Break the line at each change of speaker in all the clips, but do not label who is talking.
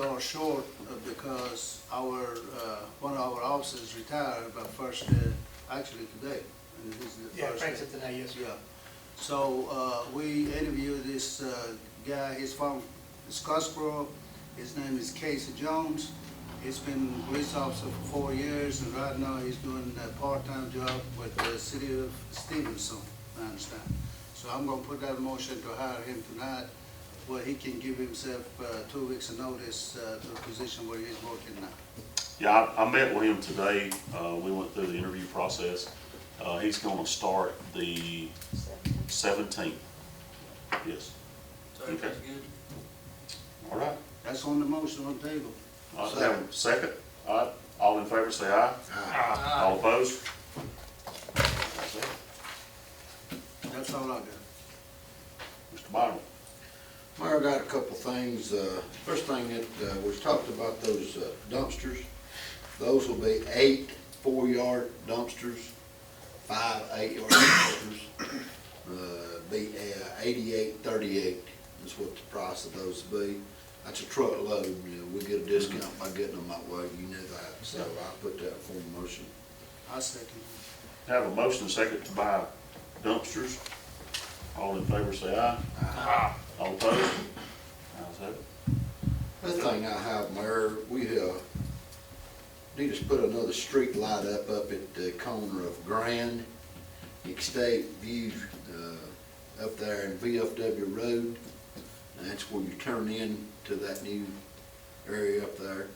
fell short uh, because our, uh, one of our officers retired by first, day- actually today. and this is the
Yeah,
first
Frank's
day.
at the yes, sir.
Yeah. So, uh, we interviewed this, uh, guy, he's from Scottsboro, his name is Casey Jones. He's been a police officer for four years, and right now he's doing a part-time job with the city of Stevenson, I understand. So I'm gonna put that motion to hire him tonight, where he can give himself, uh, two weeks' notice, uh, to the position where he's working now.
Yeah, I, I met with him today, uh, we went through the interview process, uh, he's gonna start the seventeenth. Yes,
So everything's good?
all right,
That's on the motion on the table.
I have a second, all right, all in favor say aye. Aye. All opposed? That's it.
That's all I got.
Mr. Bynum,
Mayor, I got a couple things. Uh, First thing that, uh, we talked about those uh, dumpsters. Those will be eight four-yard dumpsters, five eight-yard dumpsters. Uh, Be eighty-eight thirty-eight is what the price of those will be. That's a truckload, you know, we get a discount by getting them that way, you know that. So I put that in form of motion.
I second.
have a motion and second to buy dumpsters, all in favor say aye. Aye. All opposed? Ayes have it.
Other thing I have, Mayor, we, uh, need to put another street light up, up at the corner of Grand, Estate View, uh, up there in VFW Road. And that's where you turn in to that new area up there.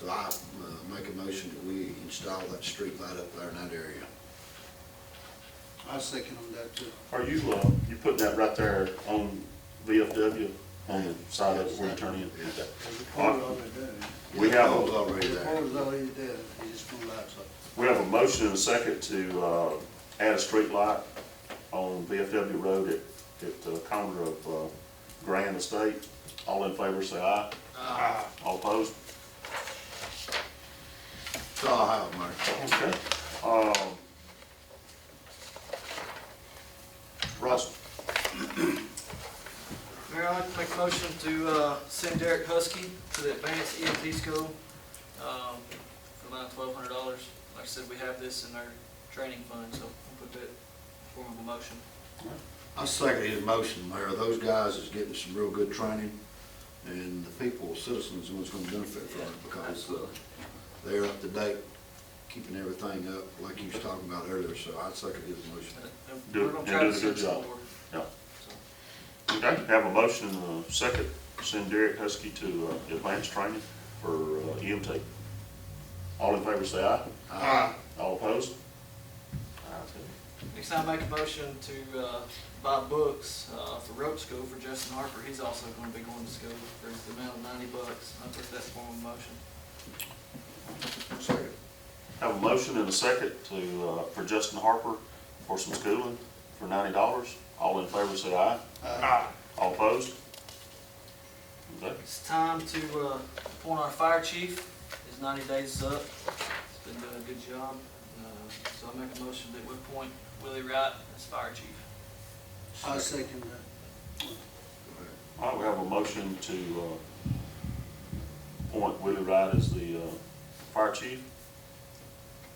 So I, uh, make a motion that we install that street light up there in that area.
I second on that too.
Are you, uh, you putting that right there on VFW, on the side of it where you turn in? Okay.
There's a pole already there.
We have,
Pole's
a-
already
The
there.
pole's already there, it just won't light up.
we have a motion and a second to, uh, add a street light on VFW Road at, at the corner of, uh, Grand Estate. All in favor, say aye. Aye. All opposed?
That's all I have, Mayor.
Okay. Um, Russell,
Mayor, I'd like to make a motion to uh, send Derek Husky to the advanced EMT school um, for about twelve hundred dollars. Like I said, we have this in our training fund, so I'll put that in form of a motion.
I second his motion, Mayor. Those guys is getting some real good training, and the people, citizens, the ones gonna benefit from it because uh, they're up to date, keeping everything up, like you was talking about earlier, so I second his motion.
And- and
Do-
we're gonna
and
try
do a
to
good
send some
job.
more.
yeah.
So,
Okay, have a motion and a second, send Derek Husky to, uh, advanced training for, uh, EMT. All in favor, say aye.
Aye.
All opposed? Ayes have it.
Next time, I make a motion to uh, buy books uh, for rope school for Justin Harper. He's also gonna be going to school for the amount of ninety bucks. I'll put that in form of a motion.
Second.
Have a motion and a second to, uh, for Justin Harper for some schooling for ninety dollars. All in favor, say aye.
Uh,
All opposed? Okay,
It's time to uh, appoint our fire chief. His ninety days is up. He's been doing a good job. Uh, So I make a motion that we appoint Willie Wright as fire chief.
I second that.
all right, we have a motion to, uh, appoint Willie Wright as the, uh, fire chief.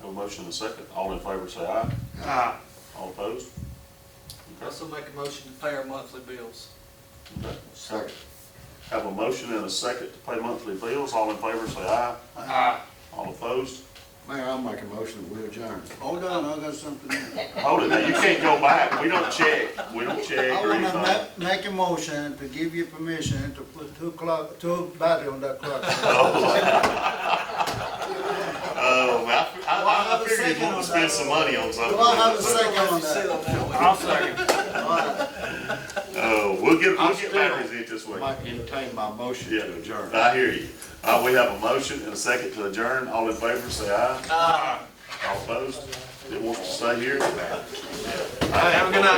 Have a motion and a second. All in favor, say aye.
Ah,
All opposed?
I
Okay,
Also make a motion to pay our monthly bills.
okay.
Second.
Have a motion and a second to pay monthly bills. All in favor, say aye.
ah,
All opposed?
Mayor, I'll make a motion that we adjourn.
Hold on, I got something else.
Hold it, now, you can't go back, we don't check, we don't check
I
or
wanna
anything.
ma- make a motion to give you permission to put two clock, two battery on that clock.
Oh, well, I, I, I figured you'd want to spend some money on something.
Do I have a second on
Sit
that?
on that one.
I'll second.
Oh, we'll get,
I'll
we'll get
still-
batteries in this way.
Might entertain my motion
Yeah,
to adjourn.
I hear you. Uh, we have a motion and a second to adjourn, all in favor, say aye. Aye. All opposed? It wants to stay here?
Have a good night.